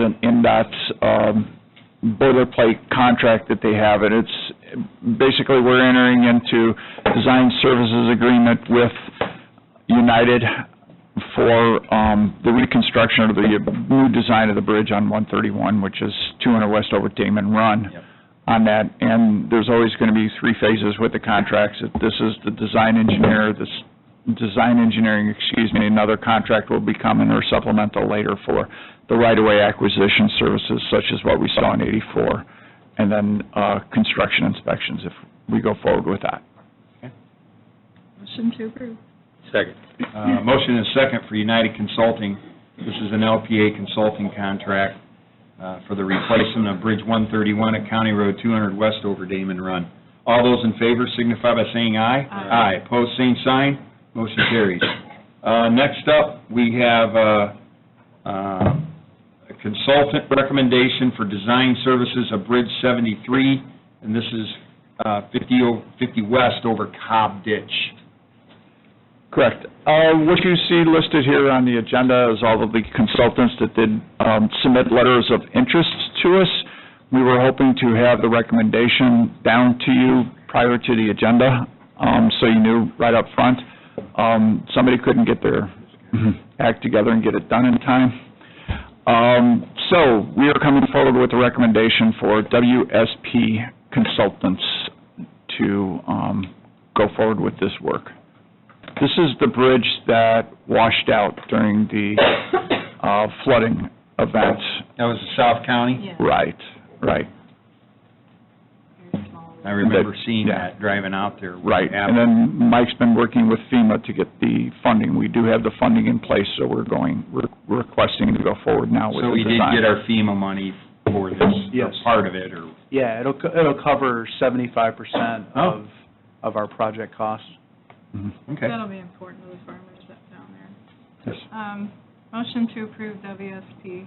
an NDOT's um, boilerplate contract that they have, and it's, basically, we're entering into design services agreement with United for um, the reconstruction of the new design of the bridge on 131, which is 200 West over Damon Run Yep. on that, and there's always going to be three phases with the contracts. If This is the design engineer, this, design engineering, excuse me, another contract will be coming or supplemental later for the right-of-way acquisition services such as what we saw in 84, and then uh, construction inspections if we go forward with that. Motion to approve. Second. Uh, motion and second for United Consulting. This is an LPA consulting contract, uh, for the replacement of Bridge one thirty-one at County Road two hundred west over Damon Run. All those in favor signify by saying aye. Aye. Aye, pose same sign, motion carries. Uh, next up, we have, uh, uh, a consultant recommendation for design services of Bridge seventy-three, and this is, uh, 50 o- 50 west over Cobb Ditch. Correct. Uh, What you see listed here on the agenda is all of the consultants that did um, submit letters of interest to us. We were hoping to have the recommendation down to you prior to the agenda, um, so you knew right up front. Um, Somebody couldn't get their act together and get it done in time. Um, So, we are coming forward with a recommendation for WSP Consultants to um, go forward with this work. This is the bridge that washed out during the uh, flooding event. That was the South County? Yeah. Right, right, Very small. I remember That- seeing yeah. that, driving out there. right. Yeah. And then Mike's been working with FEMA to get the funding. We do have the funding in place, so we're going, we're requesting to go forward now with So the we did design. get our FEMA money for this, or Yes. part of it, or, Yeah, it'll, co- it'll cover seventy-five percent Oh. of, of our project costs. Mhm. okay. That'll be important to the farmers that down there. Yes. Um, motion to approve WSP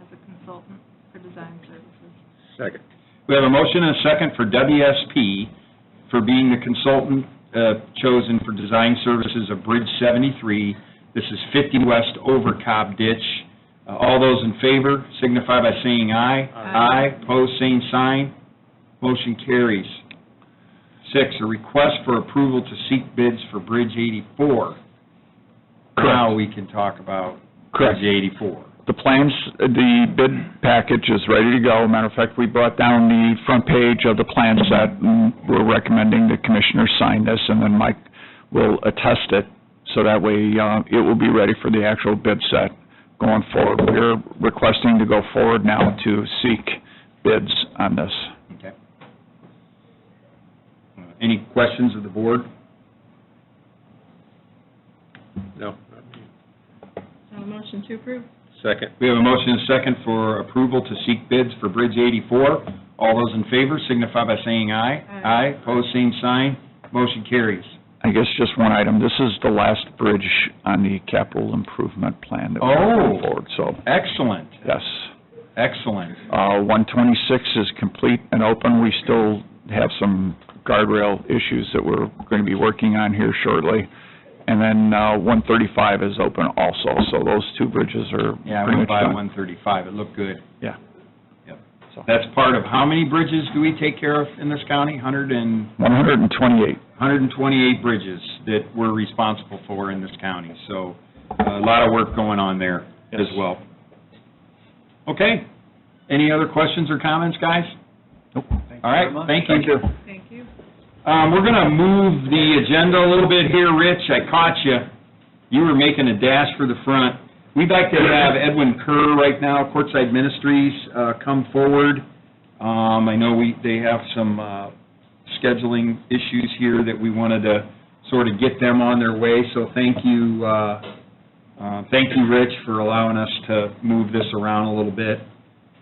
as a consultant for design services. Second. We have a motion and a second for WSP for being the consultant uh, chosen for design services of Bridge 73. This is 50 West over Cobb Ditch. Uh, All those in favor signify by saying aye. Aye. Aye, pose same sign. Motion carries. Six, a request for approval to seek bids for Bridge 84. Now we can talk about Correct. Bridge 84. The plans, the bid package is ready to go. Matter of fact, we brought down the front page of the plan set, and we're recommending the commissioners sign this, and then Mike will attest it, so that way, uh, it will be ready for the actual bid set going forward. We're requesting to go forward now to seek bids on this. Okay. Uh, Any questions of the board? No. So Uh, motion to approve. Second. We have a motion and a second for approval to seek bids for Bridge 84. All those in favor signify by saying aye. Aye. Aye, pose same sign, motion carries. I guess just one item, this is the last bridge on the capital improvement plan that we're Oh. going forward, so, Excellent, yes. excellent. Uh, 126 is complete and open. We still have some guardrail issues that we're going to be working on here shortly. And then uh, 135 is open also, so those two bridges are Yeah, I pretty went much by done. 135, it looked good. Yeah. Yep. So- That's part of, how many bridges do we take care of in this county? 100 and? 128, 128 bridges that we're responsible for in this county, so uh, a lot of work going on there as Yes. well. Okay, any other questions or comments, guys? Nope. All right, thank you. Thank you. Um, We're going to move the agenda a little bit here, Rich, I caught you. You were making a dash for the front. We'd like to have Edwin Kerr right now, Courtside Ministries, uh, come forward. Um, I know we, they have some uh, scheduling issues here that we wanted to sort of get them on their way, so thank you, uh, uh, thank you, Rich, for allowing us to move this around a little bit.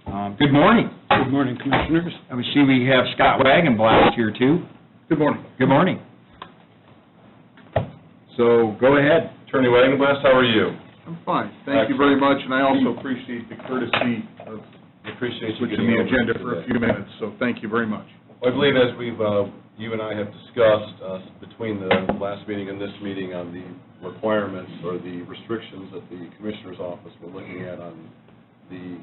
Um, Good morning. Good morning, Commissioners. I see we have Scott Wagonblatt here, too. Good morning. Good morning. So, go ahead. Attorney Wagenblast, how are you? I'm fine. Thank you very much, and I also appreciate the courtesy of I Appreciate you switching getting the over agenda today. for a few minutes, so thank you very much. I believe as we've, uh, you and I have discussed uh, between the last meeting and this meeting on the requirements or the restrictions that the Commissioner's Office were looking at on the